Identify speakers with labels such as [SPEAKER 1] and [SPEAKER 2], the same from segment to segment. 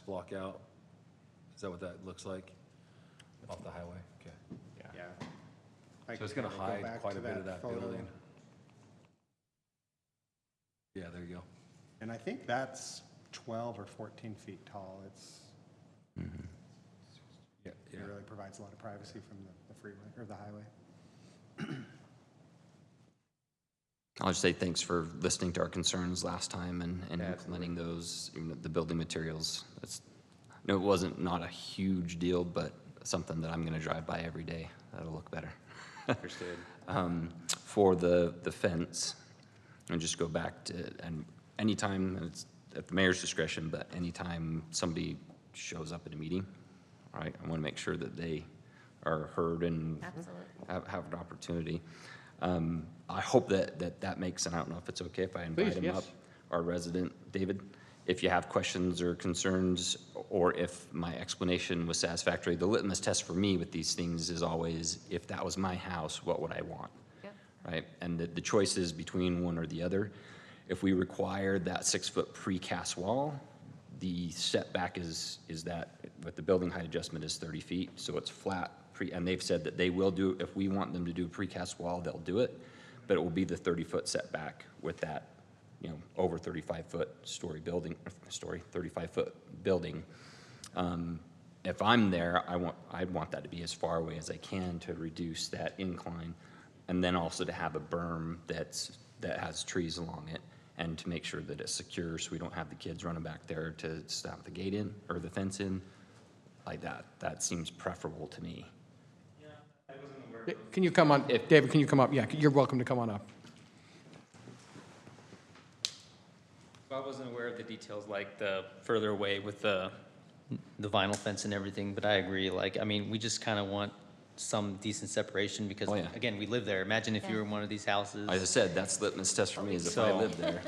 [SPEAKER 1] block out? Is that what that looks like off the highway? Okay.
[SPEAKER 2] yeah.
[SPEAKER 1] So it's going to hide quite a bit of that building. Yeah, there you go.
[SPEAKER 2] And I think that's 12 or 14 feet tall. It's,
[SPEAKER 3] Mm-hmm.
[SPEAKER 1] Yeah,
[SPEAKER 2] it
[SPEAKER 1] yeah.
[SPEAKER 2] really provides a lot of privacy from the- the freeway or the highway.
[SPEAKER 4] I'll just say thanks for listening to our concerns last time and, and
[SPEAKER 5] Yeah,
[SPEAKER 4] implementing those, you know, the building materials. That's, no, it wasn't not a huge deal, but something that I'm gonna drive by every day. That'll look better.
[SPEAKER 5] Understood.
[SPEAKER 4] Um, for the, the fence, and just go back to, and anytime, and it's at the mayor's discretion, but anytime somebody shows up at a meeting, all right, I wanna make sure that they are heard and
[SPEAKER 6] Absolutely.
[SPEAKER 4] have, have an opportunity. Um, I hope that, that that makes, and I don't know if it's okay if I invite
[SPEAKER 5] Please,
[SPEAKER 4] him
[SPEAKER 5] yes.
[SPEAKER 4] up, our resident, David. If you have questions or concerns, or if my explanation was satisfactory, the litmus test for me with these things is always, if that was my house, what would I want?
[SPEAKER 6] Yep.
[SPEAKER 4] Right? And the, the choice is between one or the other. If we require that six-foot precast wall, the setback is, is that, with the building height adjustment is 30 feet, so it's flat, pre, and they've said that they will do, if we want them to do a precast wall, they'll do it, but it will be the 30-foot setback with that, you know, over 35-foot story building, story, 35-foot building. Um, If I'm there, I want, I'd want that to be as far away as I can to reduce that incline, and then also to have a berm that's, that has trees along it, and to make sure that it's secure, so we don't have the kids running back there to stamp the gate in, or the fence in, like that. That seems preferable to me.
[SPEAKER 3] Can you come on,
[SPEAKER 4] If-
[SPEAKER 3] David, can you come up? Yeah, you're welcome to come on up.
[SPEAKER 7] I wasn't aware of the details, like the further away with the,
[SPEAKER 5] The vinyl fence and everything, but I agree, like, I mean, we just kind of want some decent separation because,
[SPEAKER 4] Oh, yeah.
[SPEAKER 5] again, we live there. Imagine if you
[SPEAKER 6] Yeah.
[SPEAKER 5] were in one of these houses.
[SPEAKER 4] As I said, that's litmus test for me, is if I
[SPEAKER 5] So-
[SPEAKER 4] live there.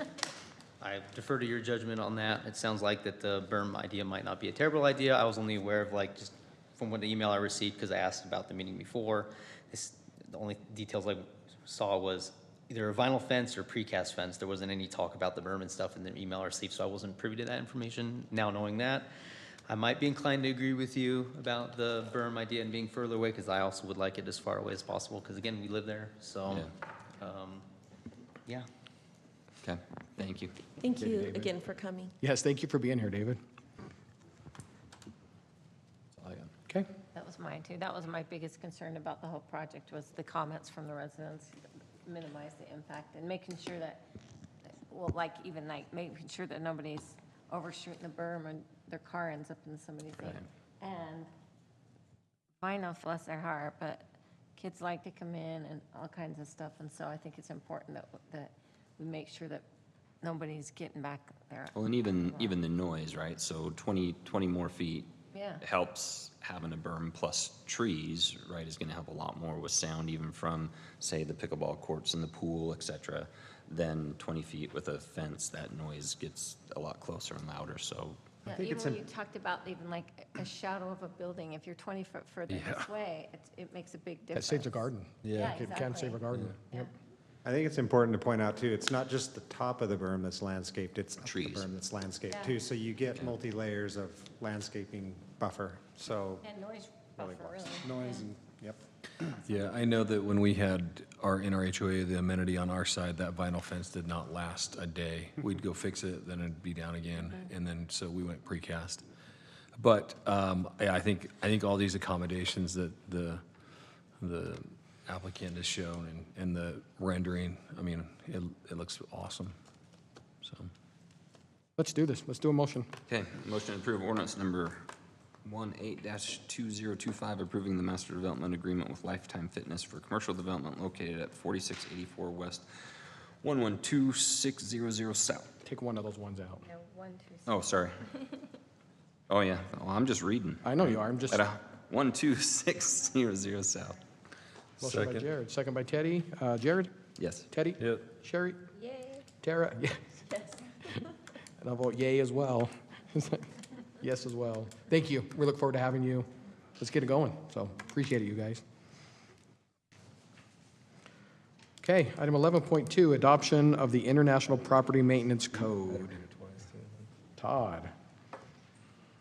[SPEAKER 5] I defer to your judgment on that. It sounds like that the berm idea might not be a terrible idea. I was only aware of like just from what the email I received because I asked about the meeting before. This, the only details I saw was either a vinyl fence or precast fence. There wasn't any talk about the berm and stuff in the email I received, so I wasn't privy to that information. Now knowing that, I might be inclined to agree with you about the berm idea and being further away because I also would like it as far away as possible because again, we live there, so, um, yeah.
[SPEAKER 4] Okay, thank you.
[SPEAKER 6] Thank you again for coming.
[SPEAKER 3] Yes, thank you for being here, David. Okay,
[SPEAKER 6] That was mine too. That was my biggest concern about the whole project was the comments from the residents, minimize the impact and making sure that, well, like even like making sure that nobody's overshooting the berm and their car ends up in somebody's lane. And I know, bless their heart, but kids like to come in and all kinds of stuff. And so I think it's important that, that we make sure that nobody's getting back there.
[SPEAKER 4] Well, and even, even the noise, right? So 20, 20 more feet
[SPEAKER 6] Yeah.
[SPEAKER 4] helps having a berm plus trees, right, is gonna help a lot more with sound even from, say, the pickleball courts and the pool, et cetera, than 20 feet with a fence, that noise gets a lot closer and louder, so,
[SPEAKER 6] Yeah,
[SPEAKER 3] think
[SPEAKER 6] even
[SPEAKER 3] it's
[SPEAKER 6] when you
[SPEAKER 3] an-
[SPEAKER 6] talked about even like a shadow of a building, if you're 20 foot further this way, it, it makes a big
[SPEAKER 3] that
[SPEAKER 6] difference.
[SPEAKER 3] saves a garden.
[SPEAKER 6] Yeah,
[SPEAKER 3] It Can save a
[SPEAKER 6] exactly.
[SPEAKER 3] garden.
[SPEAKER 6] Yeah.
[SPEAKER 3] Yep.
[SPEAKER 2] I think it's important to point out too, it's not just the top of the berm that's landscaped, it's up the
[SPEAKER 4] Trees.
[SPEAKER 2] berm that's
[SPEAKER 6] Yeah.
[SPEAKER 2] landscaped too. So you get multi-layers of landscaping buffer, so.
[SPEAKER 6] And noise
[SPEAKER 2] really
[SPEAKER 6] buffer,
[SPEAKER 2] works.
[SPEAKER 6] really.
[SPEAKER 2] Noise and, yep.
[SPEAKER 1] Yeah, I know that when we had our, in our HOA, the amenity on our side, that vinyl fence did not last a day. We'd go fix it, then it'd be down again, and then, so we went precast. But, um, yeah, I think, I think all these accommodations that the, the applicant has shown and, and the rendering, I mean, it, it looks awesome, so.
[SPEAKER 3] Let's do this. Let's do a motion.
[SPEAKER 4] okay. Motion to approve ordinance number 18-2025, approving the master development agreement with Lifetime Fitness for commercial development located at 4684 West, 112600 South.
[SPEAKER 3] Take one of those ones out.
[SPEAKER 6] No, one, two, s-
[SPEAKER 4] Oh, sorry. Oh, yeah, well, I'm just reading.
[SPEAKER 3] I know you are, I'm just,
[SPEAKER 4] At a one two six zero zero south.
[SPEAKER 3] motion by
[SPEAKER 1] Second.
[SPEAKER 3] Jared, second by Teddy. Uh, Jared,
[SPEAKER 4] Yes.
[SPEAKER 3] Teddy?
[SPEAKER 1] Yep.
[SPEAKER 3] Sherry,
[SPEAKER 6] yay,
[SPEAKER 3] Tara, yeah,
[SPEAKER 6] yes.
[SPEAKER 3] and I'll vote yay as well. Yes as well. Thank you. We look forward to having you. Let's get it going. So appreciate it, you guys. Okay, item 11.2, adoption of the International Property Maintenance Code. Todd.